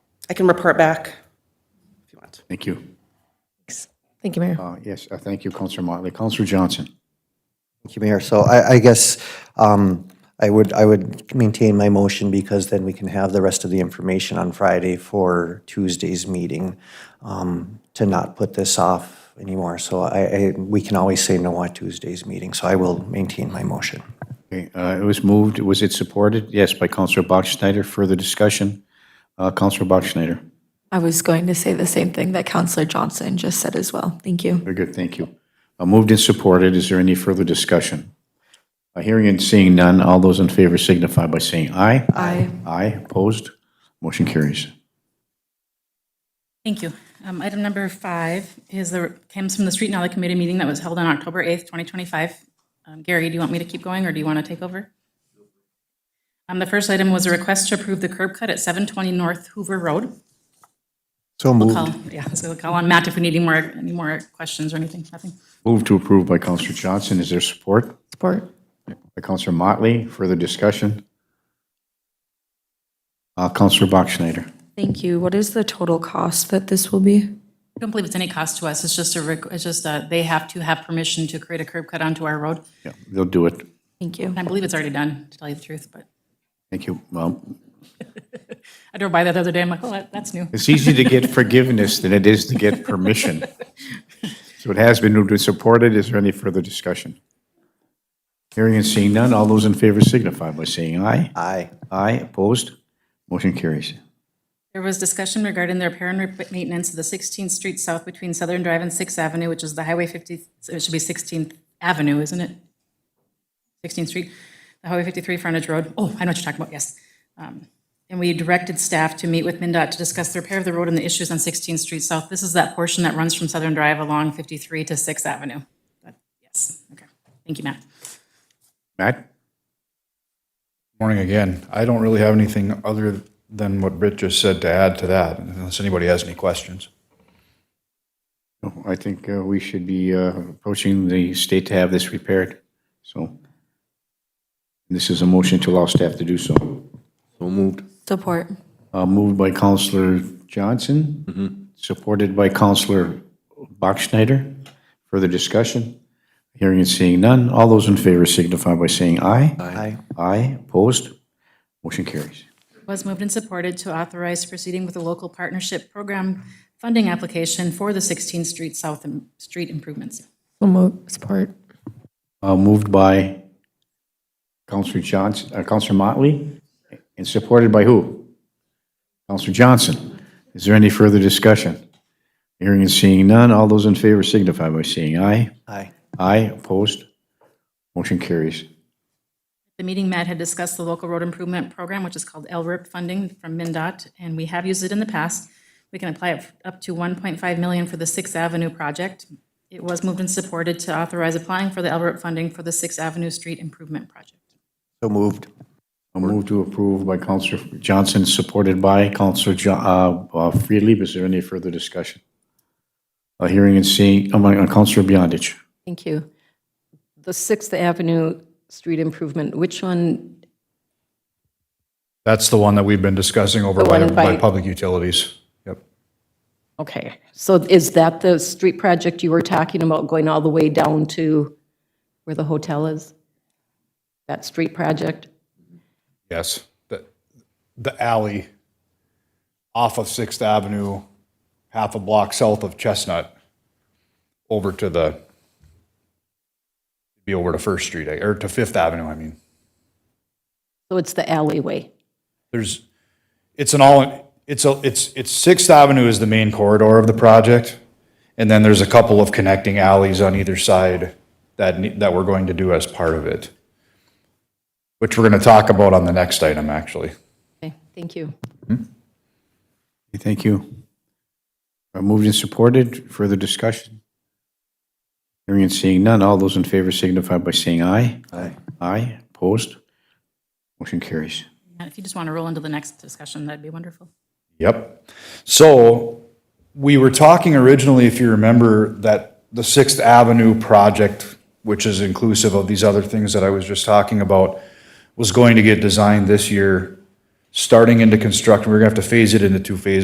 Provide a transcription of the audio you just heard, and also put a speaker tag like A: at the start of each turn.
A: I can report back if you want.
B: Thank you.
C: Thank you, Mayor.
B: Uh, Yes, uh, thank you, Counselor Motley. Counselor Johnson.
D: Thank you, Mayor. So I, I guess um, I would, I would maintain my motion because then we can have the rest of the information on Friday for Tuesday's meeting um, to not put this off anymore. So I, I, we can always say no at Tuesday's meeting, so I will maintain my motion.
B: Okay, uh, It was moved, was it supported? Yes, by Counselor Bachschnider. Further discussion? Uh, Counselor Bachschnider.
E: I was going to say the same thing that Counselor Johnson just said as well. Thank you.
B: Very good, thank you. Uh, Moved and supported, is there any further discussion? Uh, Hearing and seeing none, all those in favor signify by saying aye.
E: Aye.
B: Aye, opposed? Motion carries.
F: Thank you. Um, Item number five is the, comes from the Street and Alley Committee meeting that was held on October 8th, 2025. Um, Gary, do you want me to keep going, or do you want to take over? Um, The first item was a request to approve the curb cut at 720 North Hoover Road.
D: So
F: We'll
D: moved.
F: call, yeah, so we'll call on Matt if we need any more, any more questions or anything, nothing.
B: Moved to approve by Counselor Johnson, is there support?
C: Support.
B: By Counselor Motley, further discussion? Uh, Counselor Bachschnider.
E: Thank you. What is the total cost that this will be?
F: I don't believe it's any cost to us, it's just a, requ- it's just, uh, they have to have permission to create a curb cut onto our road.
B: Yeah, they'll do it.
E: Thank you.
F: I believe it's already done, to tell you the truth, but
B: Thank you. Well,
F: I drove by that the other day, I'm like, oh, that- that's new.
B: it's easy to get forgiveness than it is to get permission. So it has been moved and supported. Is there any further discussion? Hearing and seeing none, all those in favor signify by saying aye.
D: Aye.
B: Aye, opposed? Motion carries.
F: There was discussion regarding the repair and rep- maintenance of the 16th Street South between Southern Drive and 6th Avenue, which is the Highway 50, so it should be 16th Avenue, isn't it? 16th Street, the Highway 53 frontage road. Oh, I know what you're talking about, yes. Um, And we directed staff to meet with MinDOT to discuss the repair of the road and the issues on 16th Street South. This is that portion that runs from Southern Drive along 53 to 6th Avenue. That- Yes, okay. Thank you, Matt.
B: Matt?
G: Morning again. I don't really have anything other than what Britt just said to add to that, unless anybody has any questions.
B: No, I think uh, we should be uh, approaching the state to have this repaired. So this is a motion to allow staff to do so. So moved.
E: Support.
B: Uh, Moved by Counselor Johnson, supported by Counselor Bachschnider. Further discussion? Hearing and seeing none. All those in favor signify by saying aye.
D: Aye.
B: Aye, opposed? Motion carries.
F: was moved and supported to authorize proceeding with a local partnership program funding application for the 16th Street South im- Street improvements.
C: So moved. Support.
B: Uh, Moved by Counselor Johnson, uh, Counselor Motley, and supported by who? Counselor Johnson. Is there any further discussion? Hearing and seeing none. All those in favor signify by saying aye.
D: Aye.
B: Aye, opposed? Motion carries.
F: The meeting, Matt had discussed the local road improvement program, which is called LRIP funding from MinDOT, and we have used it in the past. We can apply it up to 1.5 million for the Sixth Avenue project. It was moved and supported to authorize applying for the LRIP funding for the Sixth Avenue Street Improvement Project.
D: So moved.
B: A move to approve by Counselor Johnson, supported by Counselor Jo- uh, uh, Freely. Is there any further discussion? Uh, Hearing and seeing, um, uh, Counselor Beyondich.
H: Thank you. The Sixth Avenue street improvement, which one,
G: That's the one that we've been discussing over
H: The
G: by,
H: one by-
G: by public utilities. Yep.
H: okay, so is that the street project you were talking about, going all the way down to where the hotel is? That street project?
G: Yes. The, the alley off of Sixth Avenue, half a block south of Chestnut, over to the, be over to First Street, I- or to Fifth Avenue, I mean.
H: So it's the alleyway.
G: there's, it's an all, it's a, it's, it's Sixth Avenue is the main corridor of the project. And then there's a couple of connecting alleys on either side that, ne- that we're going to do as part of it. Which we're gonna talk about on the next item, actually.
H: Okay, thank you.
B: Thank you. Uh, Moved and supported. Further discussion? Hearing and seeing none. All those in favor signify by saying aye. Aye. Aye, opposed? Motion carries.
F: Matt, if you just want to roll into the next discussion, that'd be wonderful.
G: Yep. So we were talking originally, if you remember, that the Sixth Avenue project, which is inclusive of these other things that I was just talking about, was going to get designed this year, starting into construction. We're gonna have to phase it into two phases.